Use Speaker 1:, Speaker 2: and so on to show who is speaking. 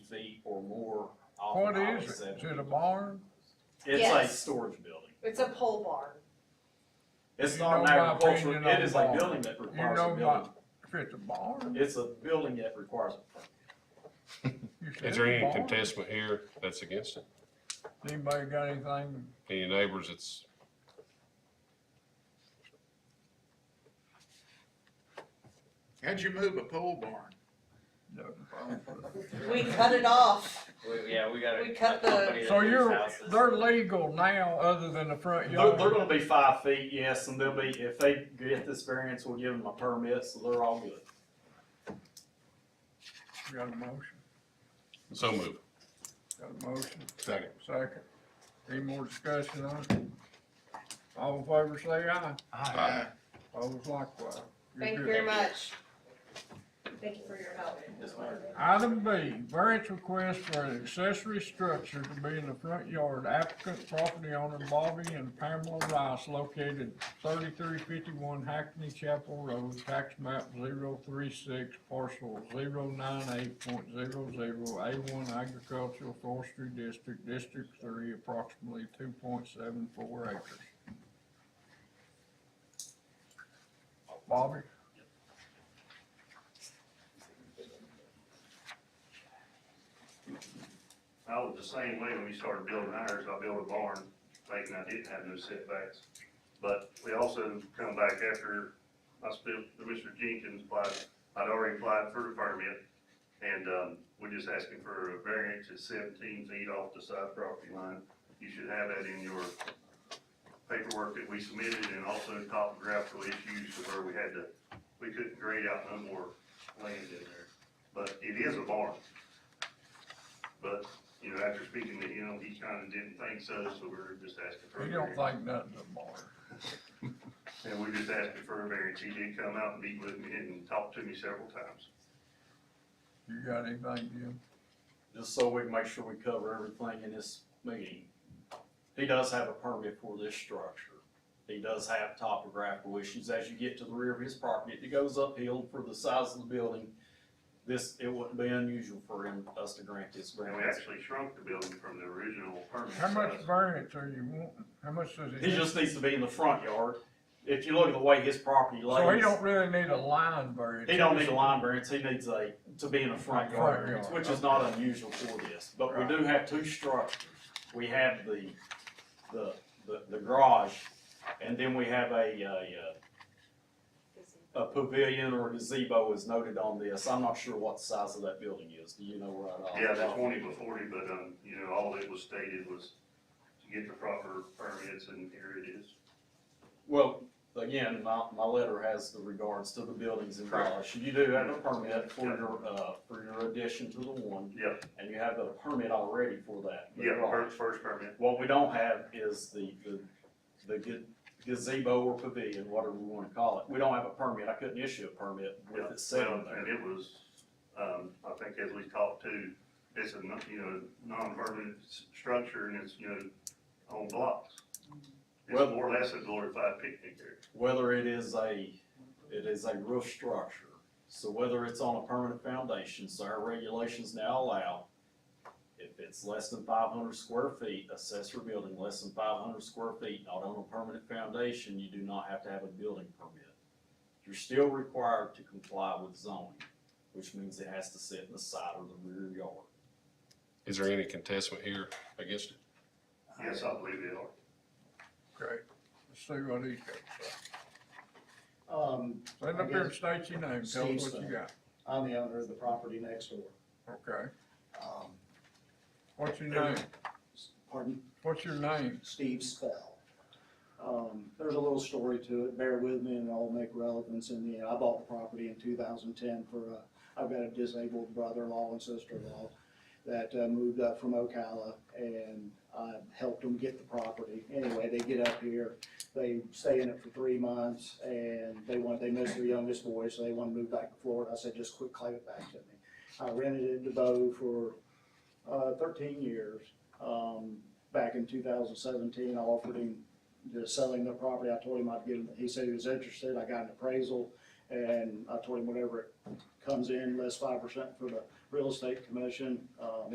Speaker 1: more
Speaker 2: What
Speaker 1: often hours
Speaker 2: is it?
Speaker 1: than-
Speaker 2: Is it a barn?
Speaker 1: It's like
Speaker 3: Yes.
Speaker 1: storage building.
Speaker 3: It's a pole barn.
Speaker 1: It's
Speaker 2: You
Speaker 1: not an
Speaker 2: know my
Speaker 1: agricultural,
Speaker 2: opinion
Speaker 1: it
Speaker 2: on
Speaker 1: is a
Speaker 2: barn.
Speaker 1: building that
Speaker 2: You
Speaker 1: requires a
Speaker 2: know
Speaker 1: building.
Speaker 2: my, if it's a barn.
Speaker 1: It's a building that requires a permit.
Speaker 2: you said
Speaker 4: Is there
Speaker 2: it's a
Speaker 4: any
Speaker 2: barn.
Speaker 4: contestant here that's against it?
Speaker 2: Anybody got anything?
Speaker 4: Any neighbors that's,
Speaker 5: How'd you move a pole barn?
Speaker 3: We cut it off.
Speaker 6: We, yeah, we got a.
Speaker 3: We cut the-
Speaker 6: company that
Speaker 2: So
Speaker 6: moves
Speaker 2: you're,
Speaker 6: houses.
Speaker 2: they're legal now, other than the front
Speaker 1: They're, they're
Speaker 2: yard.
Speaker 1: gonna be five feet, yes, and they'll be, if they get this variance, we'll give them a permit, so they're all good.
Speaker 2: Got a motion,
Speaker 4: so moved.
Speaker 2: got a motion,
Speaker 4: Second.
Speaker 2: second. Any more discussion on it? All in favor say aye,
Speaker 4: Aye.
Speaker 2: opposed likewise. You're
Speaker 3: Thank you
Speaker 2: good.
Speaker 3: very much. Thank you for your help.
Speaker 6: Yes, ma'am.
Speaker 2: Item B, variance request for an accessory structure to be in the front yard. Applicant property owner Bobby and Pamela Rice located thirty-three fifty-one Hackney Chapel Road, tax map 036, parcel 098.00, A one agricultural forestry district, district three, approximately two point seven four acres. Bobby?
Speaker 7: I was the same way when we started building ours, I built a barn, thinking I didn't have no setbacks. But we also come back after I spent, Mr. Jenkins applied, I'd already applied for the permit. And, um, we just asking for a variance at seventeen feet off the side property line. You should have that in your paperwork that we submitted and also topographical issues to where we had to, we couldn't grade out no more land in there. But it is a barn. But, you know, after speaking to him, he kinda didn't think so, so we're just asking for. a
Speaker 2: You don't
Speaker 7: variance.
Speaker 2: think nothing of Bobby.
Speaker 7: And we just asked him for a variance. He did come out and meet with me and talk to me several times.
Speaker 2: You got anything, Jim?
Speaker 1: just so we can make sure we cover everything in this meeting. He does have a permit for this structure. He does have topographical issues. As you get to the rear of his property, it goes uphill for the size of the building. This, it wouldn't be unusual for him, us to grant this
Speaker 7: And we
Speaker 1: variance.
Speaker 7: actually shrunk the building from the original permit.
Speaker 2: How much
Speaker 7: size.
Speaker 2: variance are you wanting? How much does it?
Speaker 1: He just needs to be in the front yard. If you look at the way his property
Speaker 2: So he
Speaker 1: lays,
Speaker 2: don't really need a line variance.
Speaker 1: he don't need a line variance. He needs a, to be in the front
Speaker 2: Front
Speaker 1: yard variance,
Speaker 2: yard,
Speaker 1: which is not unusual for this. But we do have two structures. We have the, the, the, the garage, and then we have a, a, a pavilion or gazebo is noted on this. I'm not sure what the size of that building is. Do you know right off?
Speaker 7: Yeah, the twenty by forty, but, um, you know, all it was stated was to get the proper permits and here it is.
Speaker 1: Well, again, my, my letter has the regards to the buildings and garage. You do have a permit for your, uh, for your addition to the one,
Speaker 7: Yep,
Speaker 1: and you have a permit already for that. the
Speaker 7: yeah,
Speaker 1: garage.
Speaker 7: first, first permit.
Speaker 1: What we don't have is the, the, the ga- gazebo or pavilion, whatever we wanna call it. We don't have a permit. I couldn't issue a permit with
Speaker 7: Yeah,
Speaker 1: it sitting
Speaker 7: well, And
Speaker 1: there.
Speaker 7: it was, um, I think as we talked to, it's a, non- you know, non-permanent s- structure and it's, you know, on blocks. It's
Speaker 1: Well-
Speaker 7: more or less a glorified picnic area.
Speaker 1: Whether it is a, it is a roof structure, so whether it's on a permanent foundation, so our regulations now allow, if it's less than five hundred square feet, accessory building less than five hundred square feet, not on a permanent foundation, you do not have to have a building permit. You're still required to comply with zoning, which means it has to sit in the side or the rear yard.
Speaker 4: Is there any contestant here against it?
Speaker 7: Yes, I believe they are.
Speaker 2: Okay, let's see what he's got. to say.
Speaker 8: Um,
Speaker 2: Stand up here and state your name, tell us what you
Speaker 8: Steve's
Speaker 2: got.
Speaker 8: I'm the owner of the property next door.
Speaker 2: Okay,
Speaker 8: Um,
Speaker 2: what's your name?
Speaker 8: Pardon,
Speaker 2: What's your name?
Speaker 8: Steve Spell. Um, there's a little story to it, bear with me and I'll make relevance in the end. I bought the property in two thousand ten for, uh, I've got a disabled brother-in-law and sister-in-law that uh, moved up from Ocala and I helped them get the property. Anyway, they get up here, they stay in it for three months and they want, they miss their youngest boy, so they want to move back to Florida. I said, just quit claim it back to me. I rented it to Bo for, uh, thirteen years. Um, back in two thousand seventeen, I offered him the selling the property. I told him I'd give him, he said he was interested. I got an appraisal and I told him whatever it comes in, less five percent for the real estate commission, um,